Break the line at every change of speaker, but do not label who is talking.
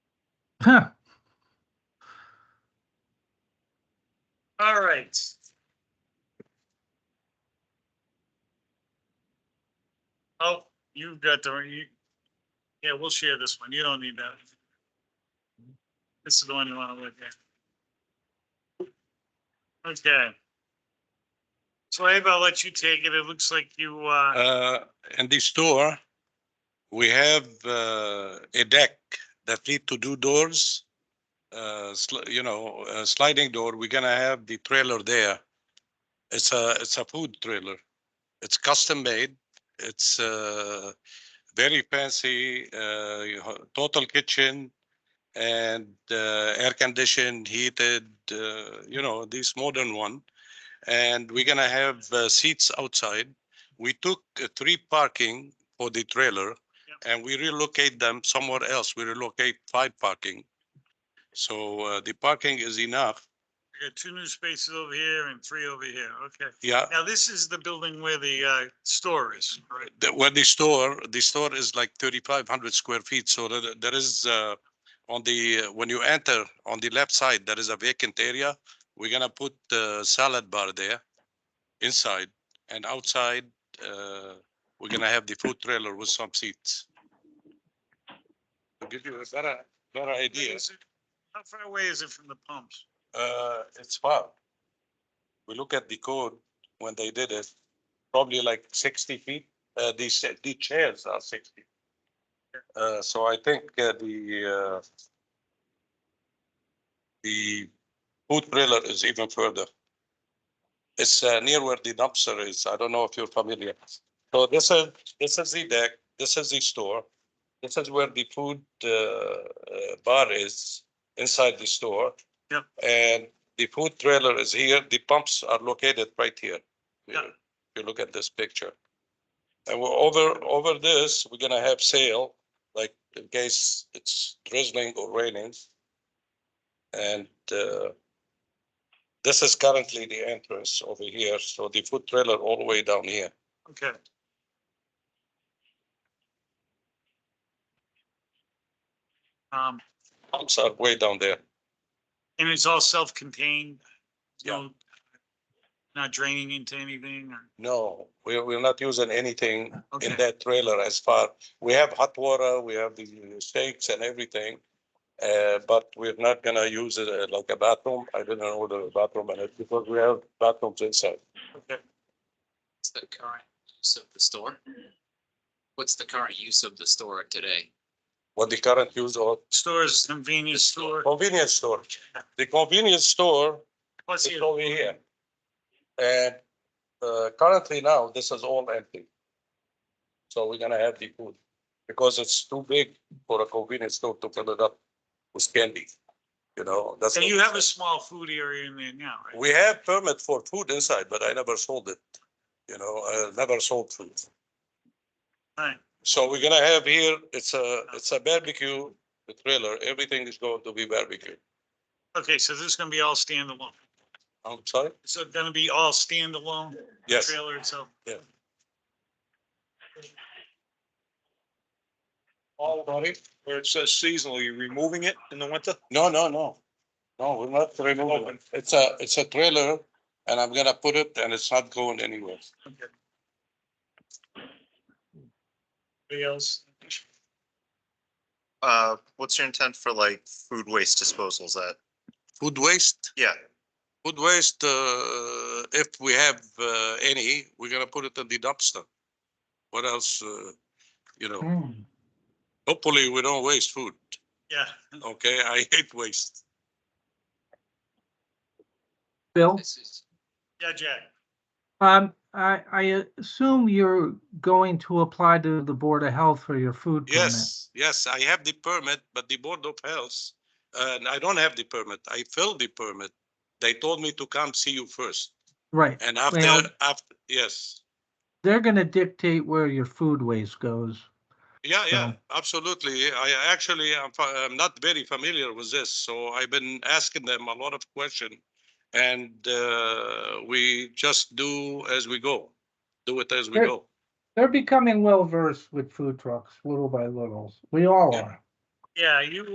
Huh.
All right. Oh, you've got the, you, yeah, we'll share this one. You don't need that. This is the one you want to look at. Okay. So Abe, I'll let you take it. It looks like you, uh,
Uh, in the store, we have, uh, a deck that need to do doors. Uh, sli- you know, a sliding door, we're gonna have the trailer there. It's a, it's a food trailer. It's custom made. It's, uh, very fancy, uh, you ho- total kitchen. And, uh, air conditioned, heated, uh, you know, this modern one. And we're gonna have uh, seats outside we took uh, three parking for the trailer and we relocate them somewhere else. We relocate five parking. So uh, the parking is enough.
you got two new spaces over here and three over here. Okay.
Yeah.
Now, this is the building where the, uh, store is, right?
The- Where the store, the store is like thirty-five hundred square feet. So there there is uh, on the, when you enter on the left side, there is a vacant area. We're gonna put uh salad bar there inside and outside, uh, we're gonna have the food trailer with some seats. To give you a better, better idea.
Is it- How far away is it from the pumps?
Uh, it's far. We look at the code when they did it, probably like sixty feet, uh, these, the chairs are sixty. Uh, so I think uh, the, uh, the food trailer is even further. It's, uh, near where the dumpster is. I don't know if you're familiar. So this is, this is the deck, this is the store. This is where the food, uh, uh, bar is inside the store.
Yeah.
And the food trailer is here. The pumps are located right here.
Yeah.
If you look at this picture. And we're over, over this, we're gonna have sail, like in case it's drizzling or raining. And, uh, this is currently the entrance over here. So the food trailer all the way down here.
Okay. Um,
Pumps are way down there.
and it's all self-contained?
Yeah.
No- Not draining into anything or,
No, we're, we're not using anything
Okay.
in that trailer as far, we have hot water, we have the steaks and everything. Uh, but we're not gonna use it uh, like a bathroom. I didn't order a bathroom in it because we have bathrooms inside.
okay,
What's the current use of the store? What's the current use of the store today?
What the current use of
stores, convenience store,
convenience store, the convenience store
plus
is
here,
over here. And, uh, currently now, this is all empty. So we're gonna have the food because it's too big for a convenience store to fill it up with candy. You know, that's.
and
what
you
we
have a
said.
small food area in there now, right?
We have permit for food inside, but I never sold it. You know, I never sold food.
Right,
So we're gonna have here, it's a, it's a barbecue trailer. Everything is going to be barbecue.
okay, so this is gonna be all standalone,
I'm sorry?
so it's gonna be all standalone?
Yes,
Trailer itself?
Yeah.
All body, where it says seasonal, you removing it in the winter?
no, no, no. No, we're not removing. it. It's a, it's a trailer and I'm gonna put it and it's not going anywhere.
Anybody else?
Uh, what's your intent for like food waste disposals at?
Food waste,
Yeah,
food waste, uh, if we have, uh, any, we're gonna put it in the dumpster. What else, uh, you know,
Hmm.
hopefully we don't waste food.
Yeah.
Okay, I hate waste.
Bill,
This is,
Yeah, Jack.
um, I, I assume you're going to apply to the Board of Health for your food permit.
Yes, yes, I have the permit, but the Board of Health, uh, and I don't have the permit. I filled the permit. They told me to come see you first.
Right,
And
Well-
after, after, yes.
they're gonna dictate where your food waste goes.
Yeah, yeah,
So-
absolutely. I actually, I'm, fa- I'm not very familiar with this, so I've been asking them a lot of question. And, uh, we just do as we go, do it as we
Sure.
go.
They're becoming well versed with food trucks, little by little. We all
Yeah.
are.
Yeah, you